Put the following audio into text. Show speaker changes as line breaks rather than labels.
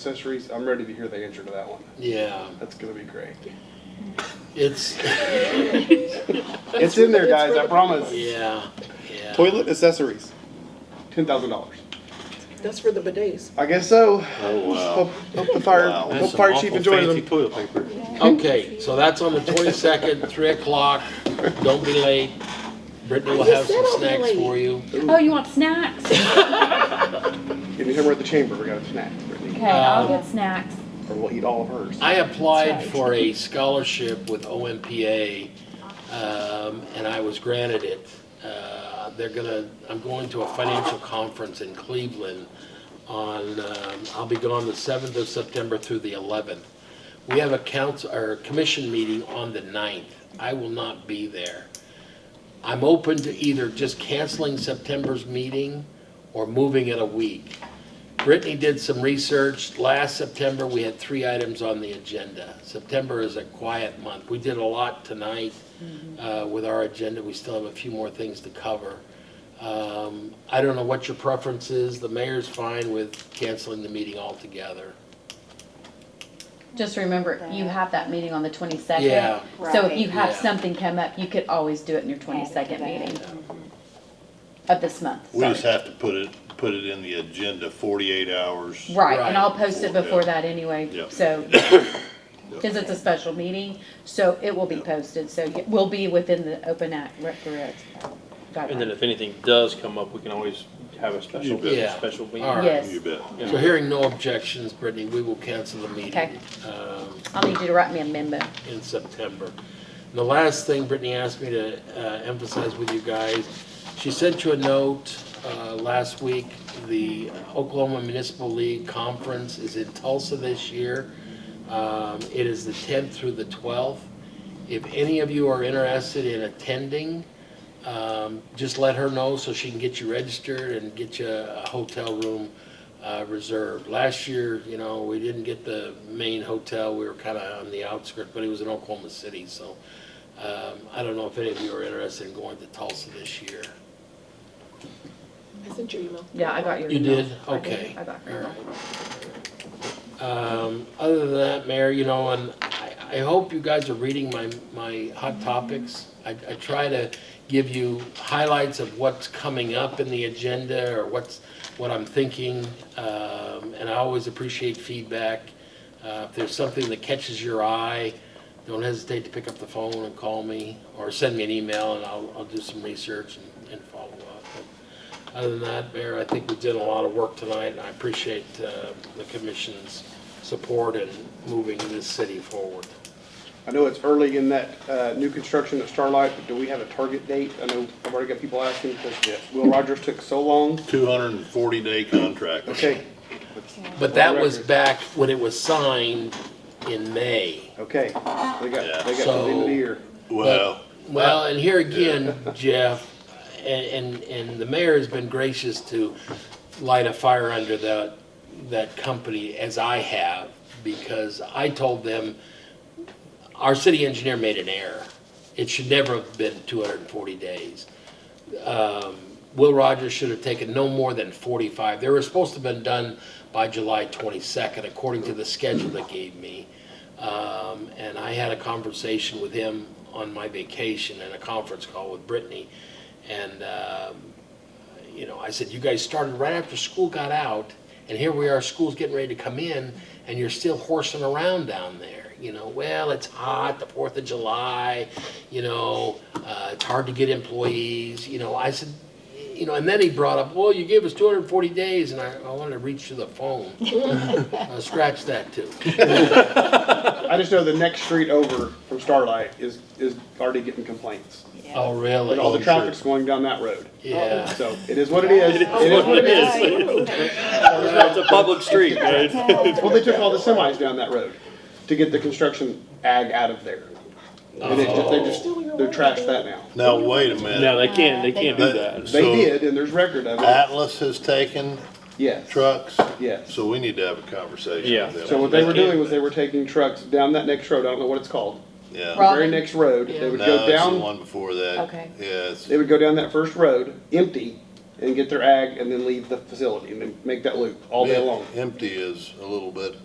accessories, I'm ready to hear the answer to that one.
Yeah,
That's gonna be great.
it's,
It's in there, guys, I promise.
yeah, yeah.
Toilet accessories, ten thousand dollars.
That's for the bidets.
I guess so.
Oh, wow.
Hope, hope the fire,
Wow.
hope
That's
fire chief enjoys them.
toilet paper.
Okay, so that's on the twenty-second, three o'clock. Don't be late. Brittany will
I just
have some
said I'll be
snacks
late.
for you.
Oh, you want snacks?
Give me her at the chamber, we got a snack, Brittany,
Okay, I'll
Um,
get snacks.
or we'll eat all of hers.
I applied
That's right.
for a scholarship with OMPA, um, and I was granted it. Uh, They're gonna, I'm going to a financial conference in Cleveland on, um, I'll be gone the seventh of September through the eleventh. We have a council, or commission meeting on the 9th. I will not be there. I'm open to either just canceling September's meeting or moving it a week. Brittany did some research. Last September, we had three items on the agenda. September is a quiet month. We did a lot tonight
Mm-hmm.
uh, with our agenda. We still have a few more things to cover. Um, I don't know what your preference is. The mayor's fine with canceling the meeting altogether.
Just remember, you have that meeting on the twenty-second.
Yeah.
So if you
Right.
have
Yeah.
something come up, you could always do it in your twenty-second meeting of this month.
We just
sorry.
have to put it, put it in the agenda forty-eight hours.
Right, and I'll
Right.
post it
Before,
before
yeah.
that anyway,
Yeah.
so. Cause it's a special meeting, so it will be posted, so it will be within the open act recorrect
And then
guidelines.
if anything does come up, we can always have a special,
bet.
Yeah.
special meeting.
All right.
Yes,
You bet.
So hearing no objections, Brittany, we will cancel the
Okay.
meeting um,
I'll need you to write me a memo.
in September. And the last thing Brittany asked me to uh, emphasize with you guys, she sent you a note uh, last week. The Oklahoma Municipal League Conference is in Tulsa this year. Um, It is the 10th through the 12th. If any of you are interested in attending, um, just let her know so she can get you registered and get you a hotel room uh, reserved. Last year, you know, we didn't get the main hotel, we were kind of on the outskirts, but it was in Oklahoma City, so um, I don't know if any of you are interested in going to Tulsa this year.
I sent you email.
Yeah, I got your
You
email.
did?
I did.
Okay.
I got your
All
email.
right. Um, other than that, Mayor, you know, and I, I hope you guys are reading my, my hot topics. I, I try to give you highlights of what's coming up in the agenda or what's, what I'm thinking. Um, and I always appreciate feedback. Uh, if there's something that catches your eye, don't hesitate to pick up the phone and call me or send me an email and I'll, I'll do some research and, and follow up. But other than that, Mayor, I think we did a lot of work tonight, and I appreciate uh, the commission's support in moving this city forward.
I know it's early in that uh, new construction at Starlight, but do we have a target date? I know I've already got people asking because Will Rogers took so long.
Two hundred and forty day contract.
Okay,
But that was
Record.
back when it was signed in May.
okay, they got, they got till the end of the
So-
year.
Well,
Well, and here again, Jeff, and, and, and the mayor has been gracious to light a fire under that, that company as I have, because I told them, our city engineer made an error. It should never have been two hundred and forty days. Um, Will Rogers should have taken no more than forty-five. They were supposed to have been done by July twenty-second, according to the schedule they gave me. Um, and I had a conversation with him on my vacation and a conference call with Brittany. And, um, you know, I said, you guys started right after school got out, and here we are, school's getting ready to come in, and you're still horsing around down there. You know, well, it's hot, the Fourth of July, you know, uh, it's hard to get employees, you know, I said, you know, and then he brought up, well, you gave us two hundred and forty days, and I, I wanted to reach to the phone. Uh, Scratch that too.
I just know the next street over from Starlight is, is already getting complaints.
Oh,
And all
really?
the traffic's going down that road.
Yeah.
So it is what it is. It is what it is.
It's a public street, right?
Well, they took all the semis down that road to get the construction ag out of there. And they just, they just, they trashed that now.
now wait a minute.
No, they can't, they can't do that.
They
So,
did, and there's record of it.
Atlas has taken
Yes.
trucks,
Yes.
so we need to have a conversation
Yeah.
with them.
So what they were doing was they were taking trucks down that next road, I don't know what it's called, the
Yeah.
very next road, they would
No,
go
it's the
down,
one before that.
Okay.
Yeah, it's,
they would go down that first road, empty, and get their ag and then leave the facility and then make that loop all day long.
Empty is a little bit